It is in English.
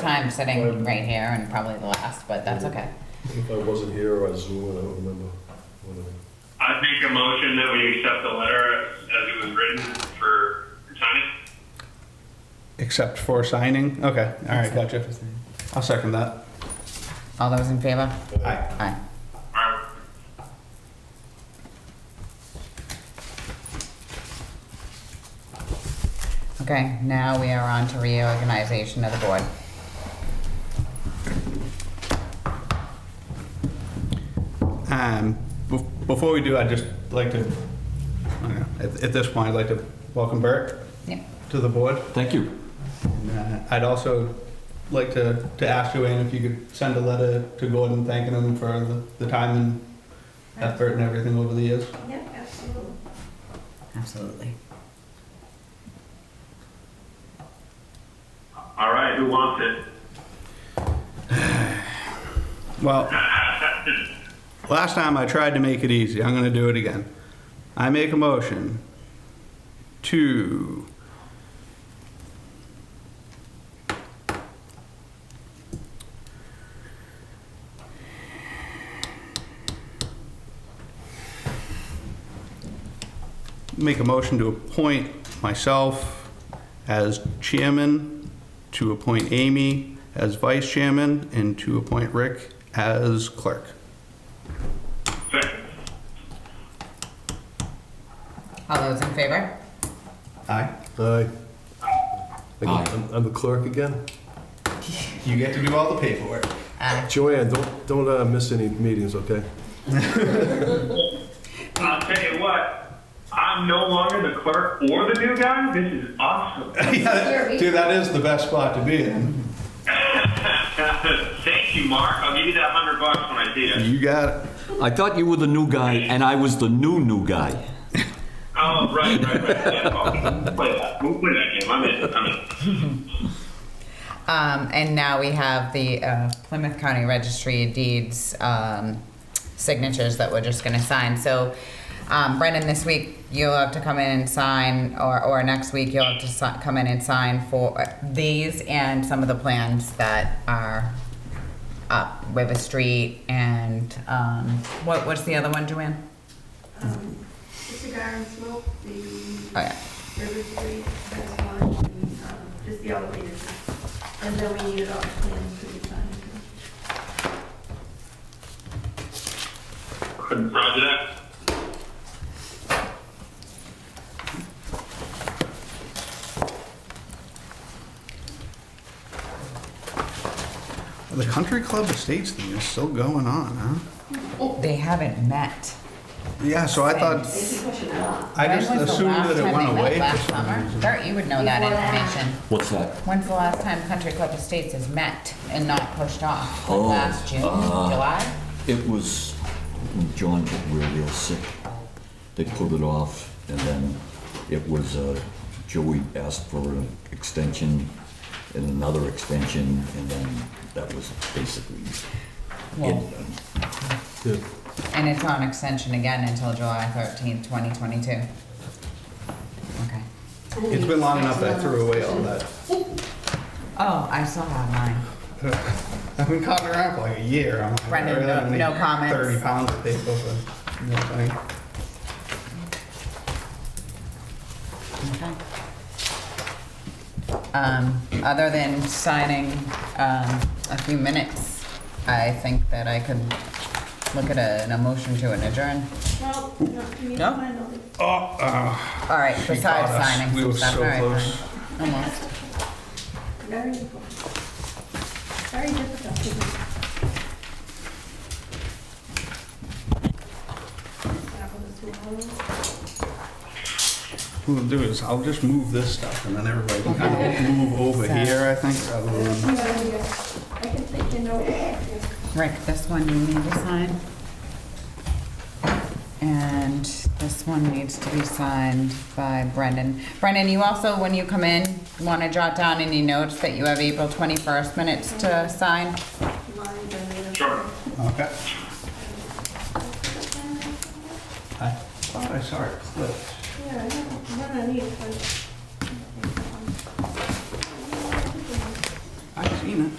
time sitting right here and probably the last, but that's okay. If I wasn't here or I Zoom, I don't remember. when I- I make a motion that we accept the letter as it was written for signing. Except for signing? Okay, all right, gotcha. I'll second that. All those in favor? Aye. Aye. Or- Okay, now we are on to reorganization of the board. Um, bef- before we do, I'd just like to, I don't know, at, at this point, I'd like to welcome Bert Yep. to the board. Thank you. And, uh, I'd also like to, to ask Joanne if you could send a letter to Gordon thanking him for the, the time and effort and everything over the years. Yeah, absolutely. Absolutely. All right, who wants it? Well, last time I tried to make it easy. I'm going to do it again. I make a motion to make a motion to appoint myself as chairman, to appoint Amy as vice chairman, and to appoint Rick as clerk. Second. All those in favor? Aye. Aye. Again, Aye. I'm- I'm the clerk again. You get to do all the paperwork. Aye. Joanne, don't, don't uh, miss any meetings, okay? I'll tell you what, I'm no longer the clerk or the new guy. This is awesome. Dude, that is the best spot to be in. Thank you, Mark. I'll give you that hundred bucks when I see it. You got it. I thought you were the new guy, and I was the new new guy. Oh, right, right, right. Yeah, oh, play that. We'll play that game. I'm in. I'm in. Um, and now we have the uh, Plymouth County Registry of Deeds um, signatures that we're just gonna sign. So um, Brendan, this week you'll have to come in and sign, or, or next week you'll have to si- come in and sign for uh, these and some of the plans that are up River Street and, um, what, what's the other one, Joanne? Um, The cigar and smoke, the Oh, yeah. River Street, that's one, and um, just the elevators. And then we needed all the plans to be signed. Roger that. The country club estates thing is still going on, huh? Oh. They haven't met. Yeah, so I thought, since- I just When was the assumed last that it time went they met? away for Last some summer? reason. Bert, you would know that Before that. information. What's that? When's the last time Country Club Estates has met and not pushed off? Like Oh, Last June, uh, July? It was when John got real, real sick. They pulled it off, and then it was uh, Joey asked for an extension and another extension, and then that was basically Yeah. it. Yeah. And it's on extension again until July thirteenth, twenty twenty-two. Okay. It's been long enough that I threw away all that. Oh, I still have mine. I've been caught around for like a year. I'm like, Brendan, I really no- don't need no comments. Thirty pounds of paper for nothing. Okay. Um, other than signing, um, a few minutes, I think that I could look at a, a motion to an adjourn. Well, no, you need to No? find all the Oh, uh, All right, She besides caught us. signing We some were stuff, so all right, close. fine. Almost. very important. Very difficult. Apples to apples. what we'll do is I'll just move this stuff and then everybody can kind of move over here, I think, rather than. You know, you guys- I can take your notes. Rick, this one you need to sign. And this one needs to be signed by Brendan. Brendan, you also, when you come in, want to jot down any notes that you have April 21st minutes to sign? Mine, Brenda. Sure. Okay. I thought I saw it clipped. Yeah, I don't, I'm gonna need it, but. I've seen it.